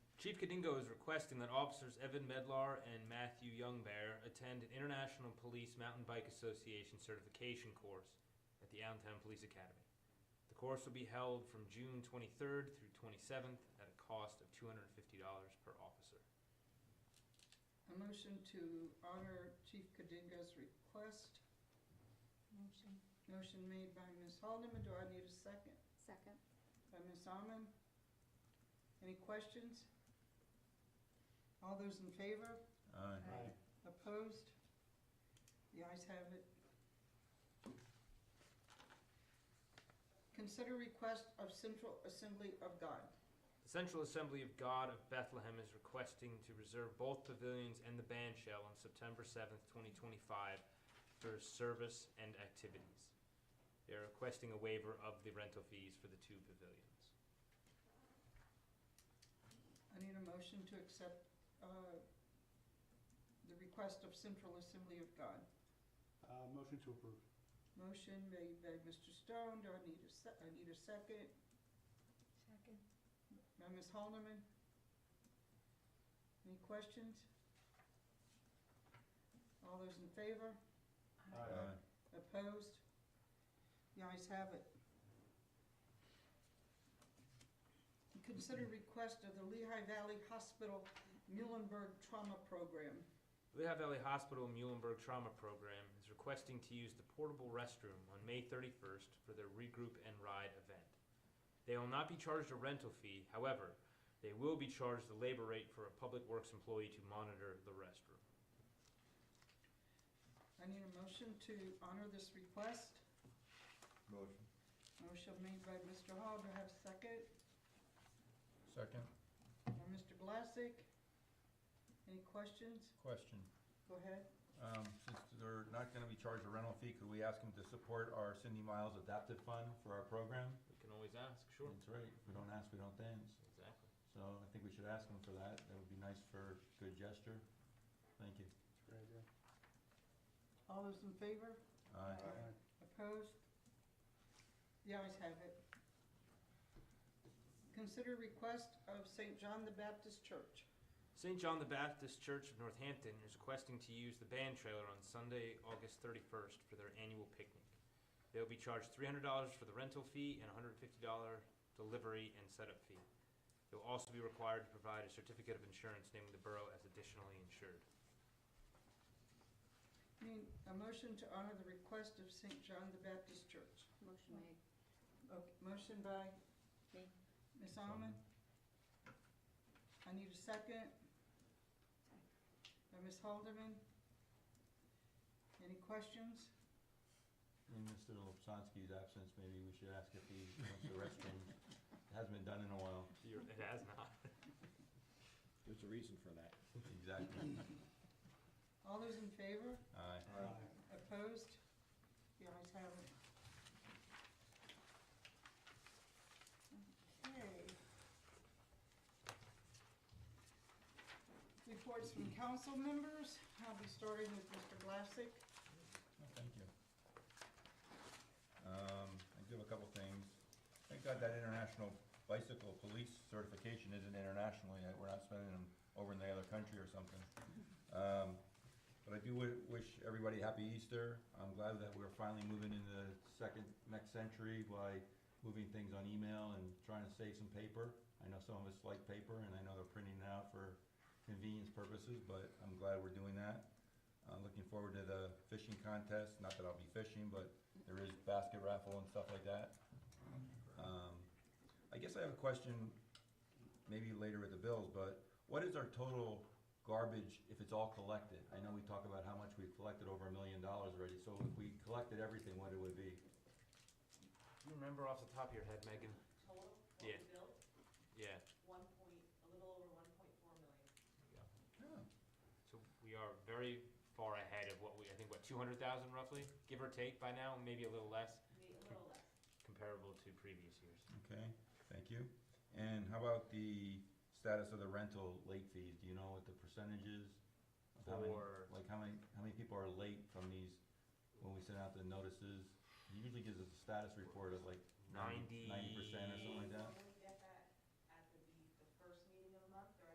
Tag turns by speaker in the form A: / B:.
A: Chief Kadingo is requesting that officers Evan Medlar and Matthew Youngbear attend an International Police Mountain Bike Association certification course at the Allentown Police Academy. The course will be held from June 23rd through 27th at a cost of $250 per officer.
B: A motion to honor Chief Kadinga's request.
C: Motion.
B: Motion made by Ms. Haldeman. Do I need a second?
C: Second.
B: By Ms. Almond. Any questions? All those in favor?
D: Aye.
B: Opposed? The ayes have it. Consider request of Central Assembly of God.
A: The Central Assembly of God of Bethlehem is requesting to reserve both pavilions and the band shell on September 7th, 2025 for service and activities. They are requesting a waiver of the rental fees for the two pavilions.
B: I need a motion to accept uh, the request of Central Assembly of God.
D: Uh, motion to approve.
B: Motion made by Mr. Stone. Do I need a se- I need a second?
C: Second.
B: By Ms. Haldeman? Any questions? All those in favor?
D: Aye.
B: Opposed? The ayes have it. Consider request of the Lehigh Valley Hospital Muhlenberg Trauma Program.
A: Lehigh Valley Hospital Muhlenberg Trauma Program is requesting to use the portable restroom on May 31st for their regroup and ride event. They will not be charged a rental fee, however, they will be charged the labor rate for a public works employee to monitor the restroom.
B: I need a motion to honor this request.
E: Motion.
B: Motion made by Mr. Hall, do I have a second?
E: Second.
B: By Mr. Glassick? Any questions?
E: Question.
B: Go ahead.
E: Um, Since they're not going to be charged a rental fee, could we ask them to support our Cindy Miles Adaptive Fund for our program?
A: We can always ask, sure.
E: That's right. If we don't ask, we don't dance.
A: Exactly.
E: So I think we should ask them for that. That would be nice for good gesture. Thank you.
D: That's a great idea.
B: All those in favor?
E: Aye.
D: Aye.
B: Opposed? The ayes have it. Consider request of St. John the Baptist Church.
A: St. John the Baptist Church of Northampton is requesting to use the band trailer on Sunday, August 31st for their annual picnic. They will be charged $300 for the rental fee and $150 delivery and setup fee. They will also be required to provide a certificate of insurance naming the borough as additionally insured.
B: Need a motion to honor the request of St. John the Baptist Church.
C: Motion made.
B: Okay, motion by
C: Me.
B: Ms. Almond. I need a second. By Ms. Haldeman. Any questions?
E: In Mr. Lobsonski's absence, maybe we should ask if he wants the restroom. It hasn't been done in a while.
A: You're- It has not.
F: There's a reason for that.
E: Exactly.
B: All those in favor?
E: Aye.
D: Aye.
B: Opposed? The ayes have it. Okay. Reports from council members. I'll be starting with Mr. Glassick.
E: Oh, Thank you. Um, I do have a couple things. Thank God that international bicycle police certification isn't internationally, that we're not spending them over in the other country or something. Um, But I do wi- wish everybody happy Easter. I'm glad that we're finally moving into the second, next century by moving things on email and trying to save some paper. I know some of us like paper, and I know they're printing it out for convenience purposes, but I'm glad we're doing that. Uh, looking forward to the fishing contest, not that I'll be fishing, but there is basket raffle and stuff like that. Um, I guess I have a question, maybe later with the bills, but what is our total garbage if it's all collected? I know we talk about how much we've collected over a million dollars already, so if we collected everything, what it would be?
A: Do you remember off the top of your head, Megan?
G: total what
A: Yeah.
G: we built,
A: Yeah.
G: one point, a little over one point four million.
A: Yeah. So we are very far ahead of what we, I think, what, 200,000 roughly, give or take by now, maybe a little less,
G: maybe a little less.
A: comparable to previous years.
E: Okay, thank you. And how about the status of the rental late fees? Do you know what the percentage is? of how many-
A: For-
E: Like, how many, how many people are late from these, when we send out the notices? It Usually gives us a status report of like ninety percent or something like that.